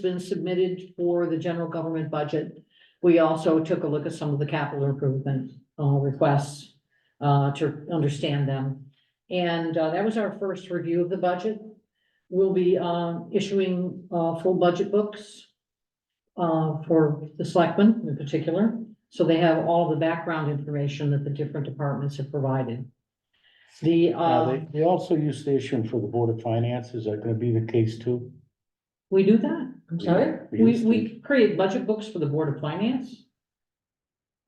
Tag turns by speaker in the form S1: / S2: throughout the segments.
S1: been submitted for the general government budget. We also took a look at some of the capital improvement uh, requests uh, to understand them. And uh, that was our first review of the budget. We'll be uh, issuing uh, full budget books uh, for the selectmen in particular, so they have all the background information that the different departments have provided. The,
S2: Now,
S1: uh,
S2: they, they also use the issue for the Board of Finance, is that gonna be the case too?
S1: we do that. I'm sorry?
S2: We- we
S1: We,
S2: used
S1: we create budget books for the Board of Finance?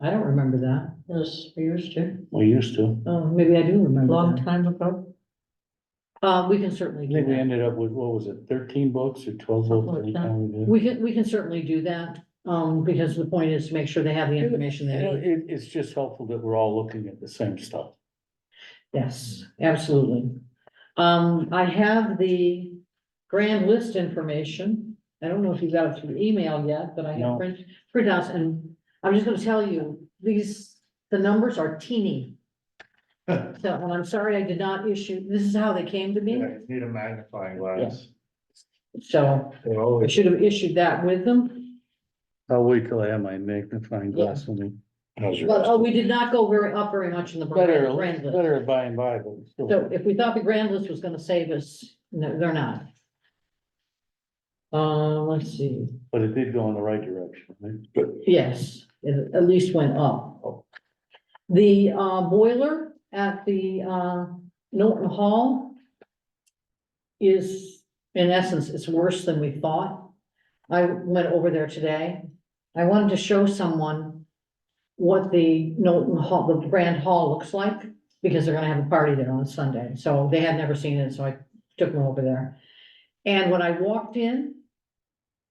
S1: I don't remember that.
S3: Yes, we used to,
S2: We used to.
S1: Oh, maybe I do remember
S3: long
S1: that.
S3: time ago.
S1: Uh, we can certainly
S2: I
S1: do
S2: think we
S1: that.
S2: ended up with, what was it, thirteen books or twelve
S3: Something
S2: books?
S3: like
S2: anytime we did?
S1: We can, we can certainly do that, um, because the point is to make sure they have the information
S2: You
S1: they
S2: know,
S1: need.
S2: It, it's just helpful that we're all looking at the same stuff.
S1: Yes, absolutely. Um, I have the grand list information. I don't know if you got it through email yet, but I
S2: No.
S1: have print, printouts and I'm just gonna tell you, these, the numbers are teeny. So, and I'm sorry I did not issue, this is how they came to me,
S4: Need a magnifying glass.
S1: so I should have issued that with them.
S2: I'll wait till I have my magnifying
S1: Yeah.
S2: glass with me.
S1: But, oh, we did not go very, up very much in the
S2: Better,
S1: grand list.
S2: better by and by, but. still.
S1: So if we thought the grand list was gonna save us, no, they're not. Uh, let's see,
S2: But it did go in the right direction, right?
S1: yes, it at least went up. The uh, boiler at the uh, Norton Hall is, in essence, it's worse than we thought. I went over there today. I wanted to show someone what the Norton Hall, the Grand Hall looks like, because they're gonna have a party there on Sunday. So they had never seen it, so I took them over there. And when I walked in,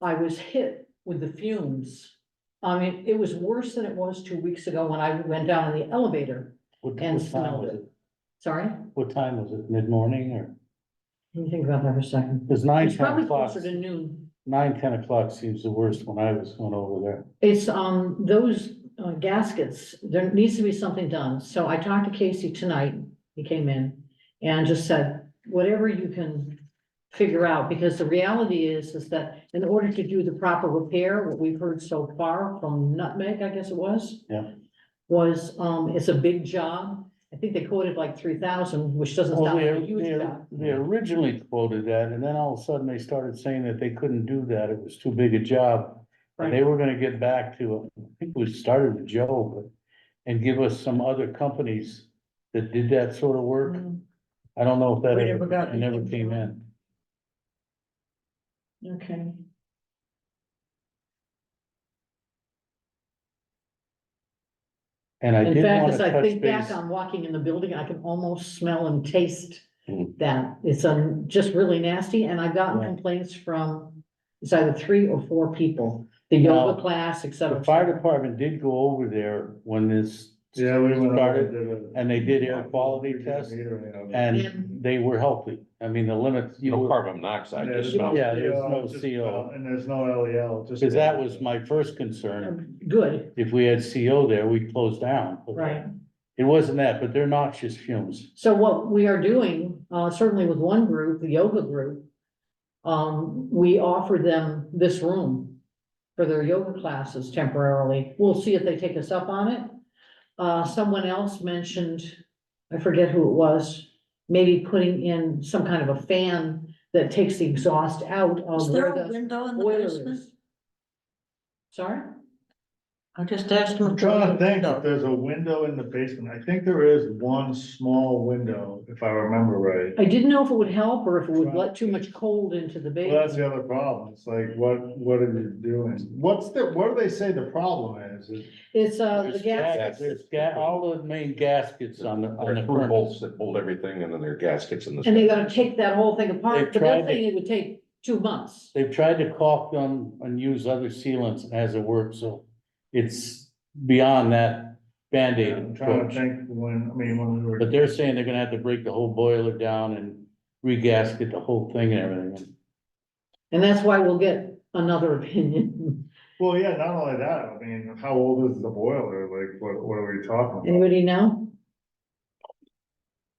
S1: I was hit with the fumes. I mean, it was worse than it was two weeks ago when I went down in the elevator.
S2: What-
S1: And
S2: what time
S1: smelled
S2: was
S1: it. Sorry,
S2: What time was it? Mid-morning or?
S1: let me think about that for a second.
S2: It was nine,
S1: It's
S2: ten
S1: probably
S2: o'clock.
S1: closer to noon.
S2: Nine, ten o'clock seems the worst when I was going over there.
S1: It's, um, those uh, gaskets, there needs to be something done. So I talked to Casey tonight, he came in and just said, whatever you can figure out, because the reality is, is that in order to do the proper repair, what we've heard so far from Nutmeg, I guess it was.
S2: Yeah.
S1: Was, um, it's a big job. I think they quoted like three thousand, which doesn't
S2: Well,
S1: sound
S2: they,
S1: like a huge
S2: they,
S1: job.
S2: they originally quoted that, and then all of a sudden they started saying that they couldn't do that, it was too big a job. And they were gonna get back to, I think we started with Joe, but, and give us some other companies that did that sort of work.
S1: Mm-hmm.
S2: I don't know if that
S3: We never
S2: ever,
S3: got
S2: it never
S3: anything
S2: came
S3: from
S2: in.
S1: Okay.
S2: And I
S1: In
S2: did
S1: fact,
S2: wanna
S1: as I
S2: touch
S1: think back
S2: base,
S1: on walking in the building, I can almost smell and taste
S2: Mm.
S1: that. It's um, just really nasty and I've gotten
S2: Yeah.
S1: complaints from it's either three or four people, the
S2: Now,
S1: yoga class, et cetera.
S2: the fire department did go over there when this.
S4: Yeah, we went.
S2: Started, and they did air quality test, and they were healthy, I mean, the limits, you
S5: No
S2: know.
S5: carbon monoxide, just
S2: Yeah,
S5: smell.
S2: yeah, there's no CO.
S4: And there's no LEL, just. E
S2: Cause that was my first concern,
S1: Um, Good,
S2: if we had CO there, we'd close down. But
S1: right.
S2: It wasn't that, but they're noxious fumes.
S1: So what we are doing, uh, certainly with one group, the yoga group, um, we offer them this room for their yoga classes temporarily. We'll see if they take us up on it. Uh, someone else mentioned, I forget who it was, maybe putting in some kind of a fan that takes the exhaust out of
S3: Is
S1: where
S3: there a
S1: the
S3: window in the
S1: boiler
S3: basement?
S1: is. Sorry?
S3: I just asked him.
S4: I'm trying to think if there's a window in the basement. I think there is one small window, if I remember right.
S1: I didn't know if it would help or if it would let too much cold into the
S4: Well, that's
S1: basement.
S4: the other problem. It's like, what, what are you doing? What's the, what do they say the problem is? Is-
S1: It's, uh, the
S5: There's
S1: gas.
S5: gas.
S2: There's ga- all the main gaskets on the, on the
S5: There are three
S2: front.
S5: bolts that hold everything and then there are gaskets in the.
S1: And they gotta take that whole thing apart,
S2: They've
S1: but that's
S2: tried to-
S1: saying it would take two months.
S2: They've tried to caulk them and use other sealants as it works, so it's beyond that Band-Aid
S4: I'm trying to
S2: approach.
S4: think when, I mean, when we were.
S2: But they're saying they're gonna have to break the whole boiler down and regasket the whole thing and everything.
S1: And that's why we'll get another opinion.
S4: Well, yeah, not only that, I mean, how old is the boiler? Like, what, what are we talking about?
S1: Anybody know?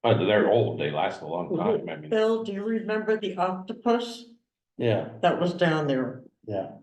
S5: But they're old, they last a long time, I mean.
S3: Bill, do you remember the octopus
S2: Yeah,
S3: that was down there?
S2: yeah.